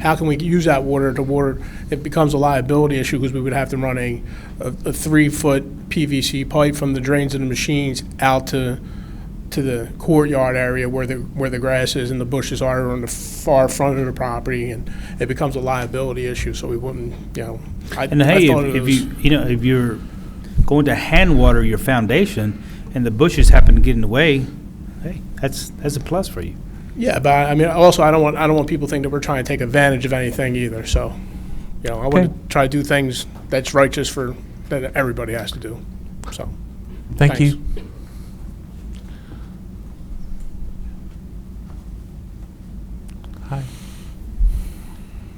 how can we use that water to water, it becomes a liability issue because we would have to run a, a a three-foot PVC pipe from the drains of the machines out to, to the courtyard area where the, where the grass is and the bushes are on the far front of the property, and it becomes a liability issue, so we wouldn't, you know. I- And I hey, thought it if, if was- you, you know, if you're going to hand water your foundation and the bushes happen to get in the way, hey, that's, that's a plus for you. Yeah, but I I mean, also, I don't want, I don't want people to think that we're trying to take advantage of anything either, so, you know, I Okay. want to try to do things that's righteous for, that everybody has to do, so. Thank you. Hi.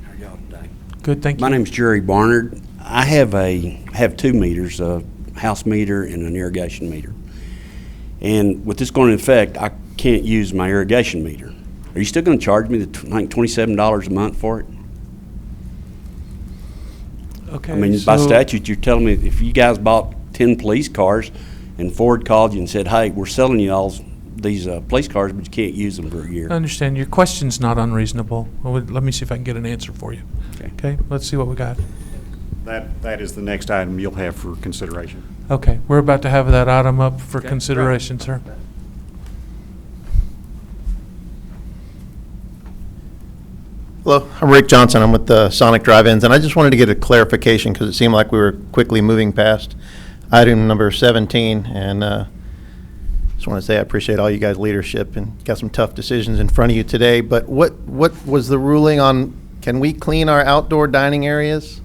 How y'all today? Good, thank My you. name's Jerry Barnard. I have a, I have two meters, a house meter and an irrigation meter. And with this going into effect, I can't use my irrigation meter. Are you still gonna charge me the, tw- like, twenty-seven dollars a month for it? Okay. I mean, by so- statute, you're telling me if you guys bought ten police cars and Ford called you and said, hey, we're selling you all these, uh, police cars, but you can't use them for a year. I understand. Your question's not unreasonable. Well, wait, Let me see if I can get an answer for you. Okay. Okay, let's see what we got. That, that is the next item you'll have for consideration. Okay, we're about to have that item up for right. consideration, sir. Hello, I'm Rick Johnson. I'm with the Sonic Drive-Ins, and I just wanted to get a clarification because it seemed like we were quickly moving past item number 17. And uh, just want to say I appreciate all you guys' leadership and got some tough decisions in front of you today. But what what was the ruling on? Can we clean our outdoor dining areas,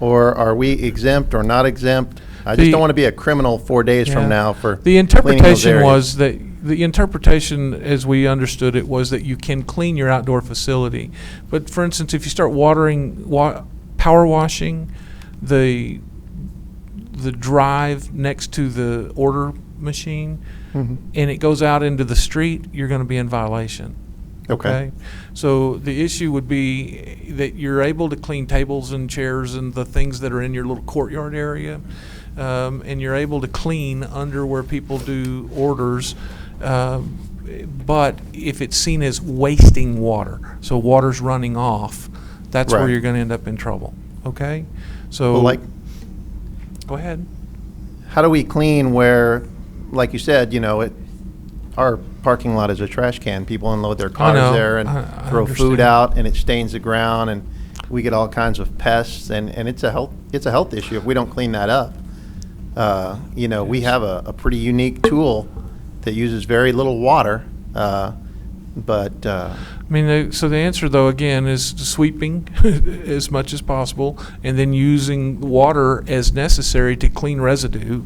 or are we exempt or not exempt? I just The- don't want to be a criminal four days Yeah. from now The for cleaning those interpretation areas. was that, the interpretation, as we understood it, was that you can clean your outdoor facility. But for instance, if you start watering, wa- power washing, the, the drive next to the order machine, Mhm. and it goes out into the street, you're gonna be in violation. Okay. So the issue would be that you're able to clean tables and chairs and the things that are in your little courtyard area. Um, and you're able to clean under where people do orders. Um, but if it's seen as wasting water, so water's running off, that's where Right. you're gonna end up in trouble, okay? So. Well, like Go ahead. how do we clean where, like you said, you know, it, our parking lot is a trash can. People unload their cars know. there and I- I throw understand. food out, and it stains the ground, and we get all kinds of pests, and, and it's a health it's a health issue if we don't clean that up. Uh, you know, we have a, a pretty unique tool that uses very little water, uh, but uh, I mean, the- so the answer, though, again, is sweeping as much as possible, and then using water as necessary to clean residue.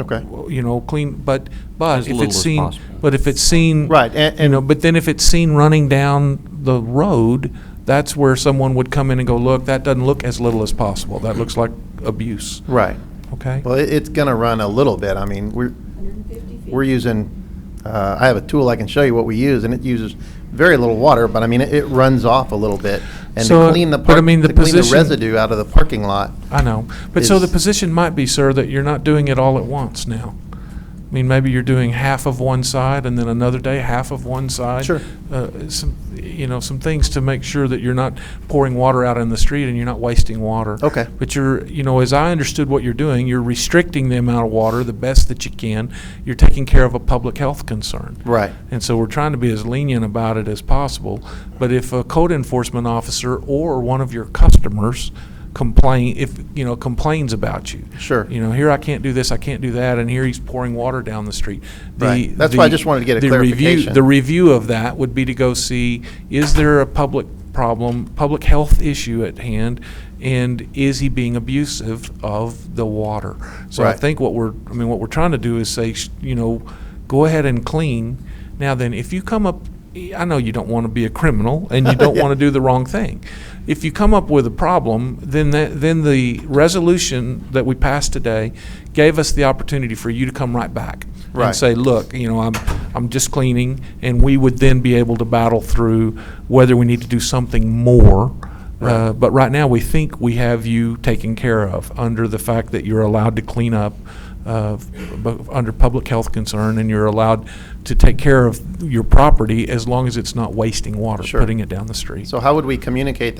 okay, You know, clean, but, but As if little it's as seen, possible. but if it's seen. Right, and- You know, and- but then if it's seen running down the road, that's where someone would come in and go, look, that doesn't look as little as possible. That looks like abuse, right. okay? Well, it- it's going to run a little bit. I mean, we're, we're using, uh, I have a tool I can show you what we use, and it uses very little water, but I mean, it- it runs off a little bit. And So, to clean the, but I park- mean, the to clean the position- residue out of the parking lot, I know. But so the is- position might be, sir, that you're not doing it all at once now. I mean, maybe you're doing half of one side and then another day half of one side. Sure. Uh, some, you know, some things to make sure that you're not pouring water out in the street and you're not wasting water. Okay. But you're, you know, as I understood what you're doing, you're restricting the amount of water the best that you can. You're taking care of a public health concern. Right. And so we're trying to be as lenient about it as possible. But if a code enforcement officer or one of your customers complain, if, you know, complains about you. Sure. You know, here I can't do this, I can't do that, and here he's pouring water down the street. The- Right. That's why I the- just wanted to get a the review- clarification. The review of that would be to go see, is there a public problem, public health issue at hand? And is he being abusive of the water? So I Right. think what we're, I mean, what we're trying to do is say, sh- you know, go ahead and clean. Now then, if you come up, I know you don't want to be a criminal and you don't Yeah. want to do the wrong thing. If you come up with a problem, then that, then the resolution that we passed today gave us the opportunity for you to come right back and Right. say, look, you know, I'm, I'm just cleaning, and we would then be able to battle through whether we need to do something more. Uh, But right now, we think we have you taken care of under the fact that you're allowed to clean up uh, bu- under public health concern, and you're allowed to take care of your property as long as it's not wasting water, Sure. putting it down the street. so how would we communicate